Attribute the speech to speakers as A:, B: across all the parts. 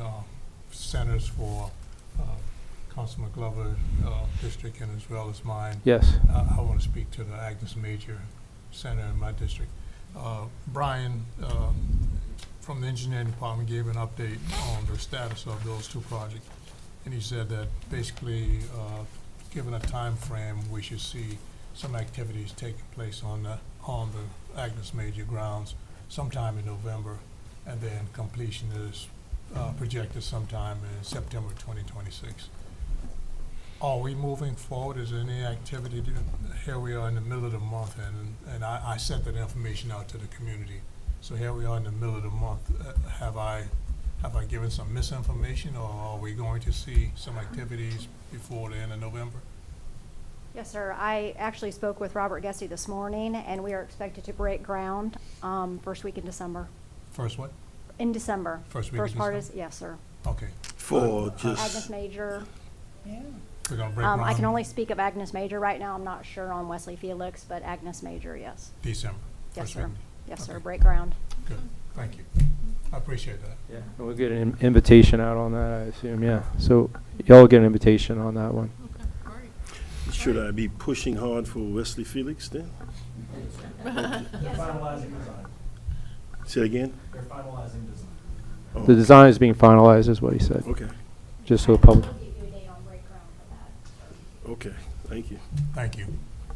A: uh, centers for uh, Councilman Glover uh, district and as well as mine.
B: Yes.
A: I want to speak to the Agnes Major Center in my district. Uh, Brian uh, from the engineering department gave an update on the status of those two projects. And he said that basically, uh, given a time frame, we should see some activities taking place on the, on the Agnes Major grounds sometime in November. And then completion is uh, projected sometime in September 2026. Are we moving forward? Is there any activity? to- Here we are in the middle of the month, and, and I, I sent that information out to the community. So here we are in the middle of the month. Uh, Have I, have I given some misinformation, or are we going to see some activities before the end of November?
C: Yes, sir. I actually spoke with Robert Gessie this morning, and we are expected to break ground um, first week in December.
A: First what?
C: In December.
A: First week in
C: First part is,
A: December.
C: yes, sir. Uh,
A: Okay, Uh,
D: For
C: Agnes
D: just,
C: Major.
A: we're gonna break
C: Um,
A: ground.
C: I can only speak of Agnes Major right now. I'm not sure on Wesley Felix, but Agnes Major, yes.
A: December.
C: Yes,
A: first week
C: sir.
A: in-
C: Yes, sir.
A: Okay.
C: Break ground.
A: Good, thank you. I appreciate that.
B: Yeah. We'll get an in- invitation out on that, I assume, yeah. So y'all get an invitation on that one.
D: should I be pushing hard for Wesley Felix then?
E: They're finalizing design.
D: Say again?
E: They're finalizing design.
D: Oh,
B: The design is being finalized, is what he said,
D: Okay,
B: just so the public.
D: okay, thank you.
A: Thank you.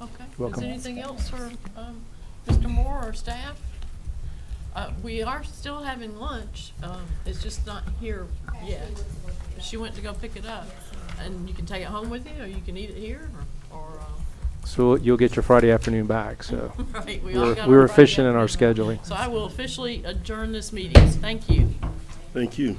F: Okay, is
B: Welcome.
F: there anything else for um, Mr. Moore or staff? Uh, We are still having lunch, um, it's just not here yet. She went to go pick it up, and you can take it home with you, or you can eat it here, or, or, uh,
B: So you'll get your Friday afternoon back, so.
F: right,
B: We
F: we all
B: were
F: got
B: we
F: our
B: were
F: Friday
B: efficient in our
F: afternoon off.
B: scheduling.
F: So I will officially adjourn this meeting, thank you.
D: Thank you.